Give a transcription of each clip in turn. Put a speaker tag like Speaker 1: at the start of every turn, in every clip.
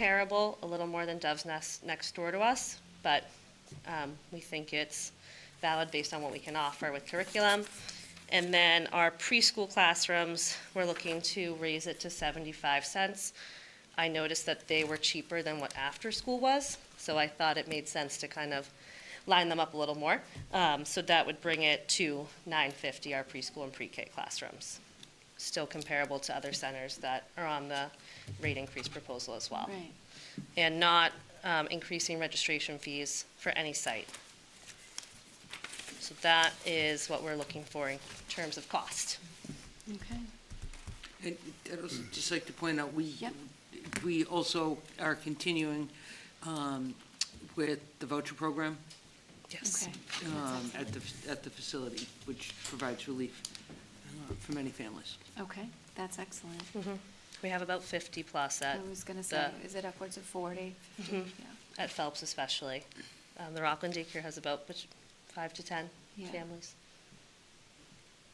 Speaker 1: comparable, a little more than Dove's Nest next door to us, but um, we think it's valid based on what we can offer with curriculum. And then our preschool classrooms, we're looking to raise it to 75 cents. I noticed that they were cheaper than what after-school was, so I thought it made sense to kind of line them up a little more. Um, So that would bring it to 950, our preschool and pre-K classrooms. Still comparable to other centers that are on the rate increase proposal as well.
Speaker 2: Right.
Speaker 1: And not um, increasing registration fees for any site. So that is what we're looking for in terms of cost.
Speaker 2: Okay.
Speaker 3: And I'd also just like to point out, we,
Speaker 2: Yep.
Speaker 3: we also are continuing um, with the voucher program
Speaker 1: Yes.
Speaker 3: um, at the, at the facility, which provides relief uh, for many families.
Speaker 2: Okay, that's excellent.
Speaker 1: We have about 50 plus
Speaker 2: I
Speaker 1: at,
Speaker 2: was gonna say,
Speaker 1: the-
Speaker 2: is it upwards of 40? 50? Yeah.
Speaker 1: at Phelps especially. Um, The Rockland daycare has about which, five to 10
Speaker 2: Yeah.
Speaker 1: families.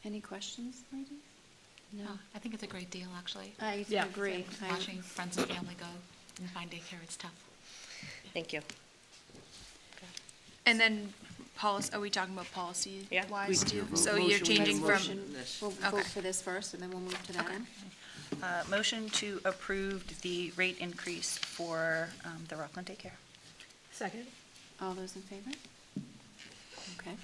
Speaker 2: Any questions, ladies? No.
Speaker 4: No, I think it's a great deal, actually.
Speaker 2: I
Speaker 5: Yeah.
Speaker 2: agree. I-
Speaker 4: Watching friends and family go and find daycare, it's tough.
Speaker 1: Thank you.
Speaker 6: And then policy, are we talking about policy
Speaker 1: Yeah.
Speaker 6: wise too?
Speaker 3: We-
Speaker 6: So you're
Speaker 3: Motion, we have a
Speaker 6: changing from,
Speaker 3: motion on this.
Speaker 2: We'll vote
Speaker 6: Okay.
Speaker 2: for this first, and then we'll move to that
Speaker 6: Okay.
Speaker 2: end.
Speaker 7: Uh, Motion to approve the rate increase for um, the Rockland daycare.
Speaker 5: Second.
Speaker 2: All those in favor? Okay.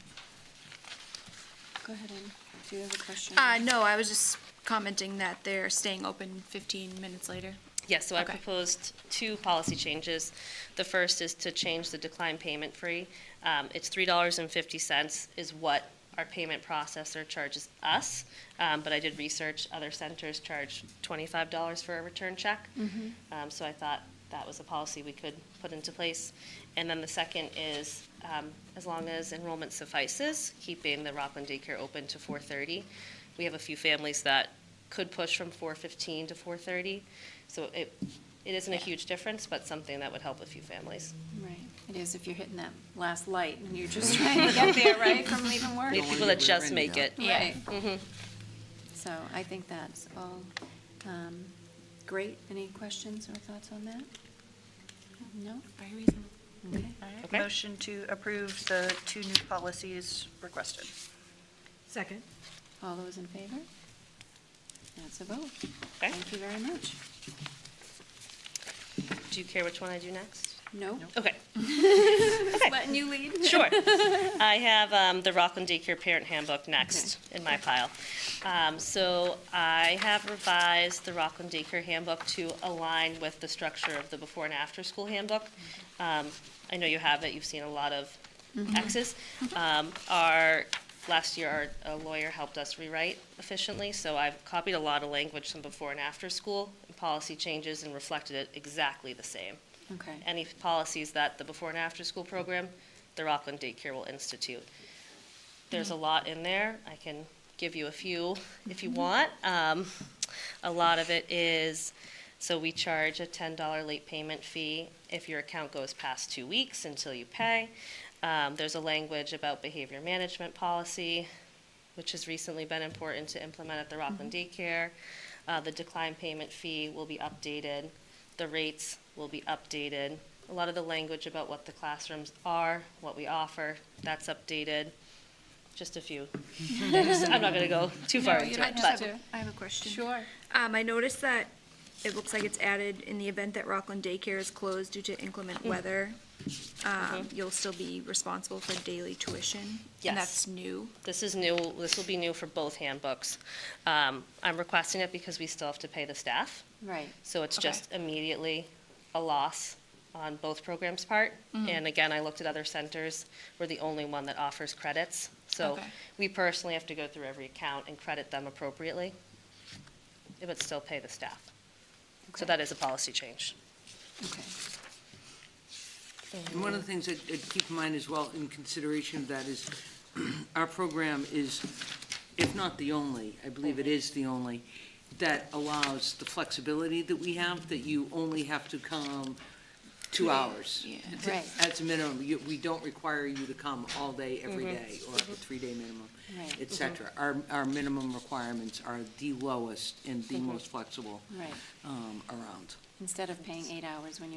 Speaker 2: Go ahead, and do you have a question?
Speaker 6: uh, no, I was just commenting that they're staying open fifteen minutes later.
Speaker 1: Yes, so I
Speaker 6: Okay.
Speaker 1: proposed two policy changes. The first is to change the decline payment free. Um, It's $3.50 is what our payment processor charges us, Um, but I did research, other centers charge $25 for a return check. Um, So I thought that was a policy we could put into place. And then the second is, um, as long as enrollment suffices, keeping the Rockland daycare open to 4:30. We have a few families that could push from 4:15 to 4:30. So it, it isn't a huge difference, but something that would help a few families.
Speaker 2: Right, it is if you're hitting that last light and you're just trying to get there, right, from leaving work.
Speaker 1: The
Speaker 3: wanna
Speaker 1: people
Speaker 3: get
Speaker 1: that just
Speaker 3: rear-ended.
Speaker 1: make it.
Speaker 2: Right. So I think that's all um, great. Any questions or thoughts on that? No?
Speaker 4: Very reasonable.
Speaker 2: Okay.
Speaker 1: Okay.
Speaker 7: Motion to approve the two new policies requested.
Speaker 5: Second.
Speaker 2: All those in favor? That's a vote.
Speaker 1: Okay.
Speaker 2: Thank you very much.
Speaker 1: Do you care which one I do next?
Speaker 2: No?
Speaker 1: Okay,
Speaker 2: Letting you lead?
Speaker 1: sure. I have um, the Rockland Daycare Parent Handbook next in my pile. Um, So I have revised the Rockland Daycare Handbook to align with the structure of the before and after school handbook. Um, I know you have it, you've seen a lot of X's. Um, Our, last year, our a lawyer helped us rewrite efficiently, so I've copied a lot of language from before and after school, and policy changes, and reflected it exactly the same.
Speaker 2: Okay,
Speaker 1: any policies that the before and after school program, the Rockland Daycare will institute. There's a lot in there. I can give you a few if you want. Um, a lot of it is, so we charge a ten dollar late payment fee if your account goes past two weeks until you pay. Um, there's a language about behavior management policy, which has recently been important to implement at the Rockland
Speaker 6: Mm-hmm.
Speaker 1: Daycare. Uh, the decline payment fee will be updated, the rates will be updated. A lot of the language about what the classrooms are, what we offer, that's updated. Just a few. I'm not gonna go too far
Speaker 6: No, you
Speaker 1: into
Speaker 6: don't
Speaker 1: it,
Speaker 6: have
Speaker 1: but.
Speaker 6: to. I have a question.
Speaker 2: sure.
Speaker 8: Um, I noticed that it looks like it's added in the event that Rockland Daycare is closed due to inclement
Speaker 1: Mm.
Speaker 8: weather. Um, you'll still be responsible for daily tuition.
Speaker 1: Mm-hmm. Yes.
Speaker 8: And that's new.
Speaker 1: This is new, this will be new for both handbooks. Um, I'm requesting it because we still have to pay the staff,
Speaker 2: Right,
Speaker 1: so it's
Speaker 6: Okay.
Speaker 1: just immediately a loss on both programs' part.
Speaker 6: Mm-hmm.
Speaker 1: And again, I looked at other centers, we're the only one that offers credits. So
Speaker 6: Okay.
Speaker 1: we personally have to go through every account and credit them appropriately, but still pay the staff. So
Speaker 2: Okay.
Speaker 1: that is a policy change.
Speaker 2: okay.
Speaker 3: And one of the things that, that keep in mind as well, in consideration of that, is our program is, if not the only, I believe it is the only, that allows the flexibility that we have, that you only have to come two hours.
Speaker 6: Yeah.
Speaker 3: It's-
Speaker 2: Right.
Speaker 3: As a minimum, you, we don't require you to come all day, every day, or a three-day minimum,
Speaker 2: Right.
Speaker 3: et cetera. Our, our minimum requirements are the lowest and the most flexible
Speaker 2: Right.
Speaker 3: um, around.
Speaker 2: instead of paying eight hours when you